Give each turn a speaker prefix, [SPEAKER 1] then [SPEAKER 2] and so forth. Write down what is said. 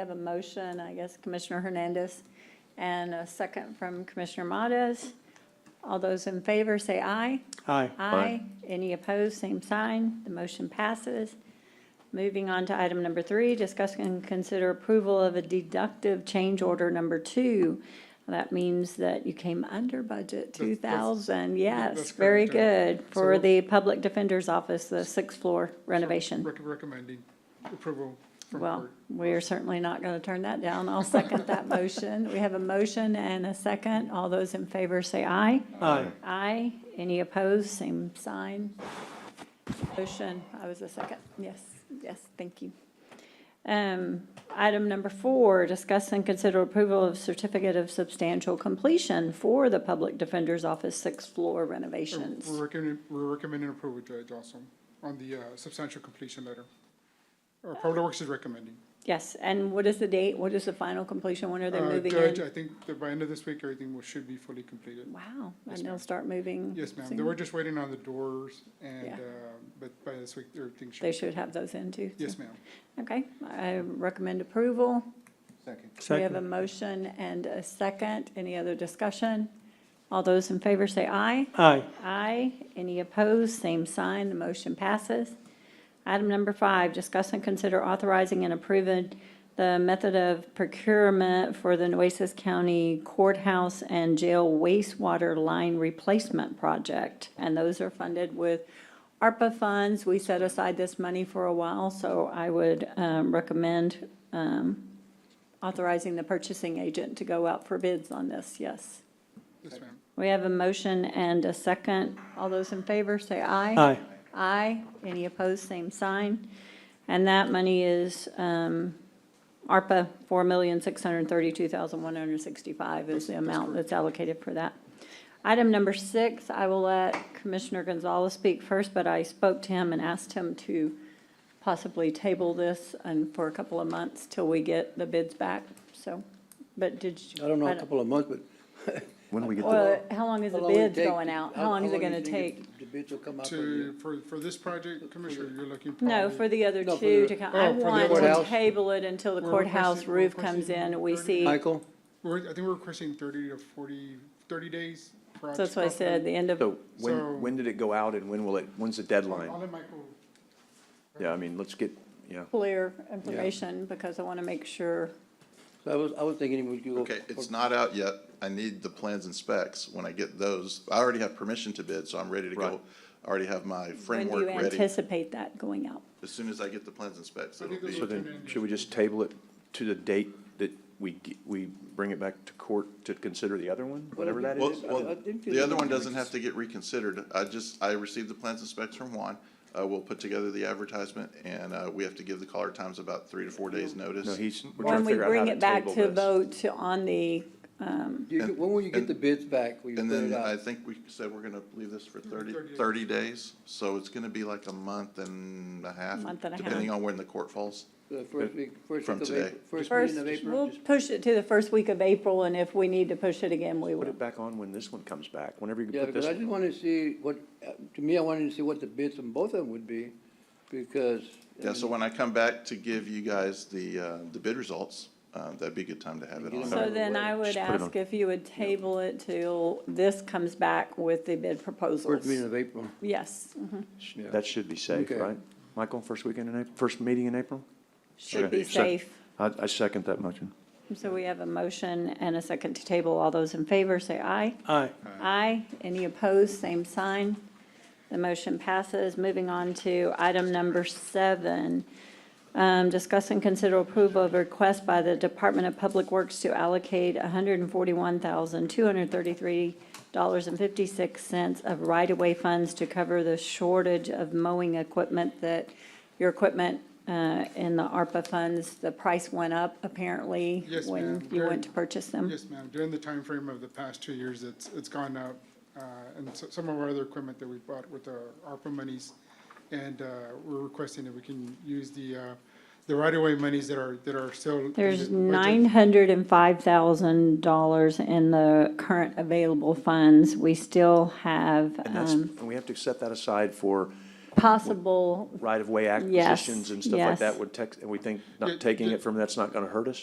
[SPEAKER 1] I have a motion, I guess Commissioner Hernandez, and a second from Commissioner Mottis. All those in favor, say aye.
[SPEAKER 2] Aye.
[SPEAKER 1] Aye. Any opposed, same sign. The motion passes. Moving on to item number three, discuss and consider approval of a deductive change order number two. That means that you came under budget two thousand, yes,
[SPEAKER 3] that's
[SPEAKER 1] very
[SPEAKER 3] correct,
[SPEAKER 1] good, for
[SPEAKER 3] So-
[SPEAKER 1] the Public Defender's Office, the sixth floor renovation.
[SPEAKER 3] Rec- Recommending approval from
[SPEAKER 1] Well,
[SPEAKER 3] court.
[SPEAKER 1] we are certainly not going to turn that down. I'll second that motion. We have a motion and a second. All those in favor say aye.
[SPEAKER 2] Aye.
[SPEAKER 1] Aye. Any opposed, same sign. Motion, I was a second. Yes, yes, thank you. Um, Item number four, discuss and consider approval of certificate of substantial completion for the Public Defender's Office sixth floor renovations.
[SPEAKER 3] Uh, We're recommending, we're recommending approval, Judge, also, on the uh, substantial completion letter. Or Public Works is recommending.
[SPEAKER 1] Yes, and what is the date? What is the final completion? When are they
[SPEAKER 3] Uh,
[SPEAKER 1] moving in?
[SPEAKER 3] Judge, I think that by end of this week, everything will, should be fully completed.
[SPEAKER 1] Wow, and
[SPEAKER 3] Yes,
[SPEAKER 1] they'll
[SPEAKER 3] ma'am.
[SPEAKER 1] start moving.
[SPEAKER 3] Yes, ma'am. They
[SPEAKER 1] soon?
[SPEAKER 3] were just waiting on the doors and,
[SPEAKER 1] Yeah.
[SPEAKER 3] uh, but by this week, everything should.
[SPEAKER 1] They should have those in too. so-
[SPEAKER 3] Yes, ma'am.
[SPEAKER 1] Okay, I recommend approval.
[SPEAKER 4] Second.
[SPEAKER 1] We have a
[SPEAKER 2] Second.
[SPEAKER 1] motion and a second. Any other discussion? All those in favor say aye.
[SPEAKER 2] Aye.
[SPEAKER 1] Aye. Any opposed? Same sign. The motion passes. Item number five, discuss and consider authorizing and approving the method of procurement for the Nueces County Courthouse and Jail wastewater line replacement project. And those are funded with ARPA funds. We set aside this money for a while, so I would um, recommend um, authorizing the purchasing agent to go out for bids on this, yes.
[SPEAKER 3] Yes, ma'am.
[SPEAKER 1] We have a motion and a second. All those in favor, say aye.
[SPEAKER 2] Aye.
[SPEAKER 1] Aye. Any opposed, same sign. And that money is um, ARPA, $4,632,165 is the amount that's allocated for that. Item number six, I will let Commissioner Gonzalez speak first, but I spoke to him and asked him to possibly table this and for a couple of months till we get the bids back, so, but did you?
[SPEAKER 5] I don't know, a couple of months, but.
[SPEAKER 4] When do we get the,
[SPEAKER 1] Well, how long is the
[SPEAKER 5] How long it
[SPEAKER 1] bids
[SPEAKER 5] take-
[SPEAKER 1] going out? How long is it
[SPEAKER 5] do you
[SPEAKER 1] gonna
[SPEAKER 5] think
[SPEAKER 1] take?
[SPEAKER 5] The bids will come out.
[SPEAKER 3] To, for, for this project, Commissioner, you're looking.
[SPEAKER 1] No,
[SPEAKER 3] probably-
[SPEAKER 1] for the other
[SPEAKER 5] No, for
[SPEAKER 1] two
[SPEAKER 5] the-
[SPEAKER 1] to come,
[SPEAKER 3] oh,
[SPEAKER 1] I
[SPEAKER 3] for the
[SPEAKER 1] want to
[SPEAKER 5] courthouse.
[SPEAKER 1] table it until the
[SPEAKER 3] We're
[SPEAKER 1] courthouse
[SPEAKER 3] requesting- we're
[SPEAKER 1] roof comes
[SPEAKER 3] requesting
[SPEAKER 1] in, we
[SPEAKER 3] thirty.
[SPEAKER 1] see, so
[SPEAKER 5] Michael,
[SPEAKER 3] We're, I think we're requesting thirty to 40 30 days. prior
[SPEAKER 1] that's
[SPEAKER 3] to
[SPEAKER 1] what I
[SPEAKER 3] proper-
[SPEAKER 1] said, the end of,
[SPEAKER 4] so when, when did it go out and when will it, when's the
[SPEAKER 3] I'll
[SPEAKER 4] deadline?
[SPEAKER 3] let Michael,
[SPEAKER 4] Yeah, I mean, let's get, yeah.
[SPEAKER 1] clear information, because I want to make sure,
[SPEAKER 5] so I was, I was thinking we could go.
[SPEAKER 6] Okay,
[SPEAKER 5] for-
[SPEAKER 6] it's not out yet. I need the plans and specs. When I get those, I already have permission to bid, so I'm ready to go.
[SPEAKER 4] Right.
[SPEAKER 6] I already have my
[SPEAKER 1] when do
[SPEAKER 6] framework
[SPEAKER 1] you
[SPEAKER 6] ready.
[SPEAKER 1] anticipate that going out?
[SPEAKER 6] As soon as I get the plans and specs,
[SPEAKER 3] I
[SPEAKER 6] it'll
[SPEAKER 3] think those
[SPEAKER 6] be,
[SPEAKER 4] So then, should we just table it to the date that we, g- we bring it back to court to consider the other one, whatever that
[SPEAKER 6] well,
[SPEAKER 4] is?
[SPEAKER 5] I- I
[SPEAKER 6] well,
[SPEAKER 5] didn't feel
[SPEAKER 6] the other
[SPEAKER 5] like
[SPEAKER 6] one
[SPEAKER 5] it
[SPEAKER 6] doesn't have to get reconsidered. I just, I received the plans and specs from Juan. Uh, we'll put together the advertisement and, uh, we have to give the caller times about three to four days notice.
[SPEAKER 4] No, he's, we're trying
[SPEAKER 1] When we
[SPEAKER 4] to figure out how
[SPEAKER 1] bring
[SPEAKER 4] to
[SPEAKER 1] it back
[SPEAKER 4] table
[SPEAKER 1] to
[SPEAKER 4] this.
[SPEAKER 1] vote to- on the,
[SPEAKER 5] You- you- When will you get
[SPEAKER 6] and-
[SPEAKER 5] the bids back? Will you
[SPEAKER 6] And
[SPEAKER 5] put it
[SPEAKER 6] then I
[SPEAKER 5] out?
[SPEAKER 6] think we said we're gonna leave this for 30
[SPEAKER 3] 30 days.
[SPEAKER 6] 30 days, so it's gonna be like a month and a half.
[SPEAKER 1] Month and a half.
[SPEAKER 6] Depending on when the court falls.
[SPEAKER 5] The first week, first
[SPEAKER 6] From
[SPEAKER 5] week of
[SPEAKER 6] today.
[SPEAKER 5] April, first
[SPEAKER 1] first,
[SPEAKER 5] meeting of April?
[SPEAKER 1] we'll push it to the first week of April, and if we need to push it again, we
[SPEAKER 4] Put
[SPEAKER 1] will.
[SPEAKER 4] it back on when this one comes back, whenever you
[SPEAKER 5] Yeah,
[SPEAKER 4] put
[SPEAKER 5] because
[SPEAKER 4] this
[SPEAKER 5] I
[SPEAKER 4] one.
[SPEAKER 5] just wanted to see what, uh, to me, I wanted to see what the bids on both of them would be, because. I
[SPEAKER 6] Yeah, so
[SPEAKER 5] mean,
[SPEAKER 6] when I come back to give you guys the, uh, the bid results, uh, that'd be a good time to have it
[SPEAKER 5] Get
[SPEAKER 6] on.
[SPEAKER 5] them
[SPEAKER 1] So then I would
[SPEAKER 4] Just put it
[SPEAKER 1] ask if you would table it till this comes back with the bid
[SPEAKER 5] First meeting
[SPEAKER 1] proposals.
[SPEAKER 5] of April.
[SPEAKER 1] Yes,
[SPEAKER 5] Yeah.
[SPEAKER 4] That should be safe,
[SPEAKER 5] Okay.
[SPEAKER 4] right? Michael, first weekend in April, first meeting in April?
[SPEAKER 1] should
[SPEAKER 4] Okay.
[SPEAKER 1] be
[SPEAKER 4] Sec-
[SPEAKER 1] safe.
[SPEAKER 4] I, I second that motion.
[SPEAKER 1] So we have a motion and a second to table. All those in favor, say aye.
[SPEAKER 2] Aye.
[SPEAKER 1] Aye. Any opposed, same sign. The motion passes. Moving on to item number seven. Um, Discuss and consider approval of request by the Department of Public Works to allocate $141,233.56 of right-of-way funds to cover the shortage of mowing equipment that, your equipment uh, in the ARPA funds, the price went up apparently
[SPEAKER 3] Yes,
[SPEAKER 1] when
[SPEAKER 3] ma'am.
[SPEAKER 1] you
[SPEAKER 3] Very-
[SPEAKER 1] went to purchase them.
[SPEAKER 3] Yes, ma'am. During the time frame of the past two years, it's, it's gone up. uh, And so- some of our other equipment that we bought with the ARPA monies. And uh, we're requesting that we can use the, uh, the right-of-way monies that are, that are still. in
[SPEAKER 1] There's
[SPEAKER 3] the budget.
[SPEAKER 1] nine hundred and five thousand dollars in the current available funds. We still have,
[SPEAKER 4] And that's,
[SPEAKER 1] um,
[SPEAKER 4] and we have to set that aside for
[SPEAKER 1] possible
[SPEAKER 4] right-of-way
[SPEAKER 1] Yes,
[SPEAKER 4] acquisitions and stuff like
[SPEAKER 1] yes.
[SPEAKER 4] that would text, and we think
[SPEAKER 3] Yeah,
[SPEAKER 4] not taking
[SPEAKER 3] yeah.
[SPEAKER 4] it from that's not gonna hurt us?